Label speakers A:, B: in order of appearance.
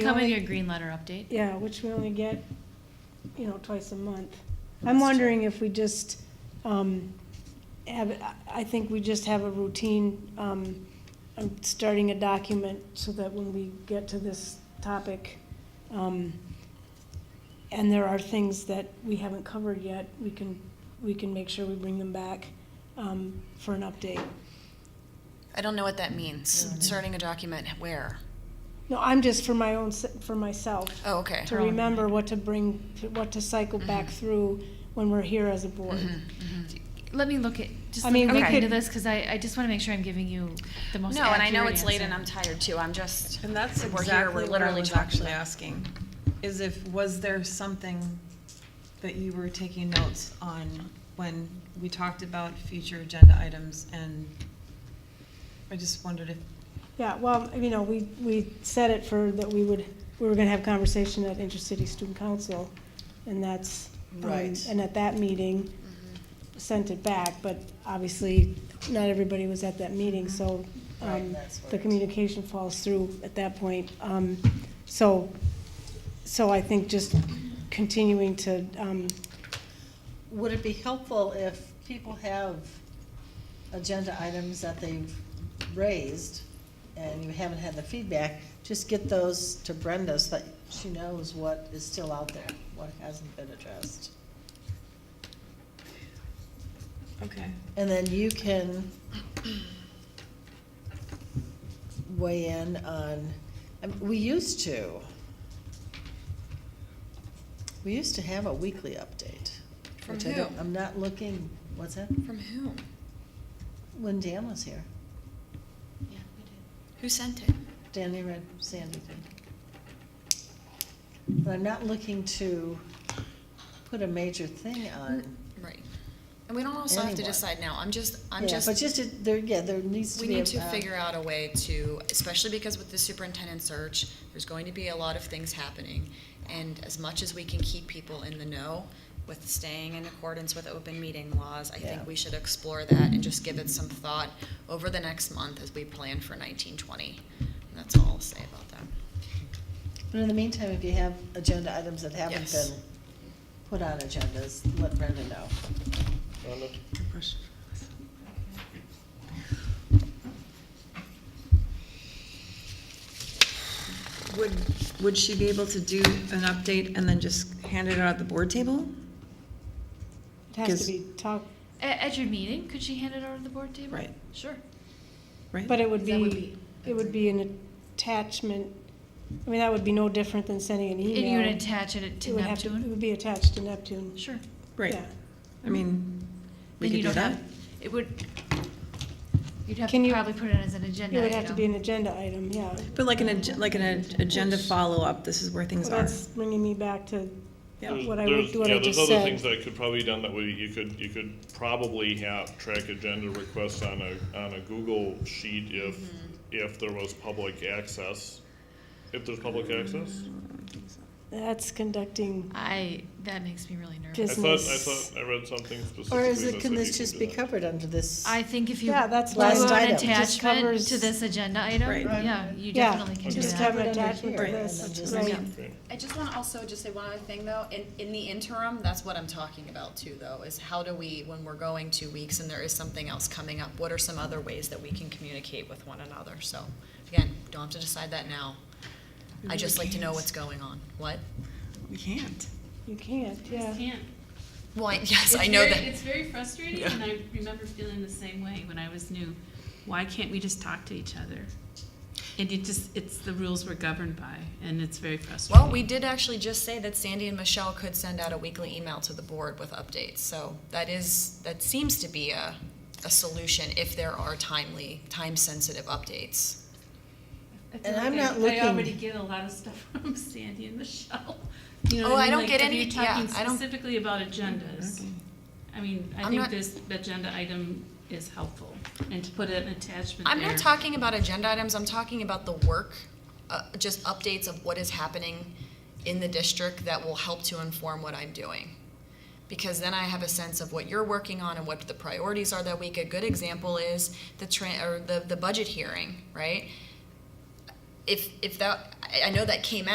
A: Come with
B: only-
A: your green letter update.
B: Yeah, which we only get, you know, twice a month. I'm wondering if we just, um, have, I- I think we just have a routine, um, I'm starting a document so that when we get to this topic, um, and there are things that we haven't covered yet, we can, we can make sure we bring them back, um, for an update.
C: I don't know what that means. Starting a document where?
B: No, I'm just for my own, s- for myself.
C: Oh, okay.
B: to remember what to bring, what to cycle back through when we're here as a board.
C: Mm-hmm,
A: Let me look at, just
B: I
A: let me
B: mean,
A: look
C: we
A: into
B: could-
A: this, because I, I just want to make sure I'm giving you the most
C: No, and I know
A: accurate
C: it's late
A: answer.
C: and I'm tired too. I'm just,
D: And that's
C: we're here,
D: exactly
C: we're
D: what I
C: literally
D: was
C: talking
D: actually
C: about.
D: asking, is if, was there something that you were taking notes on when we talked about future agenda items? And I just wondered if,
B: Yeah, well, you know, we, we said it for, that we would, we were gonna have conversation at intercity student council, and that's, um,
E: Right.
B: and at that meeting, sent it back, but obviously, not everybody was at that meeting, so, um,
E: Right, that's what
B: the
E: it is.
B: communication falls through at that point. Um, so, so I think just continuing to, um,
E: Would it be helpful if people have agenda items that they've raised and you haven't had the feedback, just get those to Brenda so that she knows what is still out there, what hasn't been addressed?
D: okay.
E: And then you can weigh in on, I mean, we used to. We used to have a weekly update.
C: From
E: which I don't-
C: who?
E: I'm not looking, what's that?
C: from whom?
E: When Dan was here.
C: Yeah, we did. Who sent it?
E: Danny read Sandy did. But I'm not looking to put a major thing
C: Mm,
E: on.
C: Right. And we don't also have to
E: Anyone.
C: decide now. I'm just, I'm
E: Yeah,
C: just.
E: But just, it- there, yeah, there needs to
C: We
E: be. uh,
C: need to figure out a way to, especially because with the superintendent search, there's going to be a lot of things happening. And as much as we can keep people in the know with staying in accordance with open meeting laws, I
E: Yeah.
C: think we should explore that and just give it some thought over the next month as we plan for nineteen twenty. And that's all I'll say about that.
E: But in the meantime, if you have agenda items that haven't
C: Yes.
E: been put on agendas, let Brenda know.
D: Would, would she be able to do an update and then just hand it out at the board table?
B: it has to
D: Because-
B: be talked,
A: A- At, your meeting, could she hand it over to the board table?
D: Right.
A: Sure.
D: Right?
B: But it would
C: That would
B: be, it would be an attachment, I mean, that would be no different than sending an
A: And
B: email.
A: you would attach it
B: It
A: to
B: would have to- It
A: Neptune?
B: would be attached to Neptune.
A: Sure.
D: Right,
B: yeah.
D: I mean, we
A: Then you
D: could do
A: don't
D: that.
A: have, it would, you'd have
B: Can
A: to
B: you-
A: probably put it as an agenda
B: It would have to
A: item.
B: be an agenda item, yeah.
D: But like an, ag- like an ag- agenda follow-up, this is where things
B: Well,
D: are.
B: That's bringing me back to
D: Yeah.
B: what I,
F: There's-
B: would- what I
F: Yeah, there's
B: just
F: other things
B: said.
F: that could probably be done that way, you could, you could probably have, track agenda requests on a, on a Google sheet if,
B: Mm-hmm.
F: if there was public access. If there's public access?
B: That's conducting,
A: I, that makes me really
F: I
A: nervous.
B: Just-
F: thought, I
B: Business.
F: thought, I read something specifically.
E: Or is
F: that
E: it, can
F: said
E: this
F: you
E: just
F: do
E: be
F: that.
E: covered under this?
A: I think if you do
B: Yeah,
A: an
B: that's last
E: item. Just
A: attachment
B: covers-
A: to this agenda item,
D: Right.
A: yeah, you
B: Yeah,
A: definitely can do
B: just
A: that.
B: have an
E: Covered under
B: attachment to
E: here, and
B: this,
E: then just-
B: right.
F: Okay.
C: I just want to also just say one other thing though. In, in the interim, that's what I'm talking about too though, is how do we, when we're going two weeks and there is something else coming up, what are some other ways that we can communicate with one another? So again, don't have to decide that now. I just like to know what's going on. What?
D: We can't.
B: You can't, yeah.
G: just can't.
C: Well, I- yes,
G: It's
C: I know
G: very-
C: that.
G: It's very frustrating, and I remember feeling the same way when I was new. Why can't we just talk to each other? And it just, it's the rules we're governed by, and it's very frustrating.
C: Well, we did actually just say that Sandy and Michelle could send out a weekly email to the board with updates. So that is, that seems to be a, a solution if there are timely, time-sensitive updates.
G: I feel
E: and
G: like
E: I'm
G: I-
E: not
G: I already
E: looking-
G: get a lot of stuff from Sandy and Michelle. You know
C: Oh,
G: what
C: I don't
G: mean?
C: get
G: Like, if
C: any-
G: you're talking
C: yeah, I don't- Mm-hmm.
G: Specifically about agendas. I mean, I
C: I'm
G: think
C: not-
G: this agenda item is helpful, and to put an attachment there.
C: I'm not talking about agenda items, I'm talking about the work, uh, just updates of what is happening in the district that will help to inform what I'm doing. Because then I have a sense of what you're working on and what the priorities are that week. A good example is the tran, or the, the budget hearing, right? If, if that, I, I know that came out.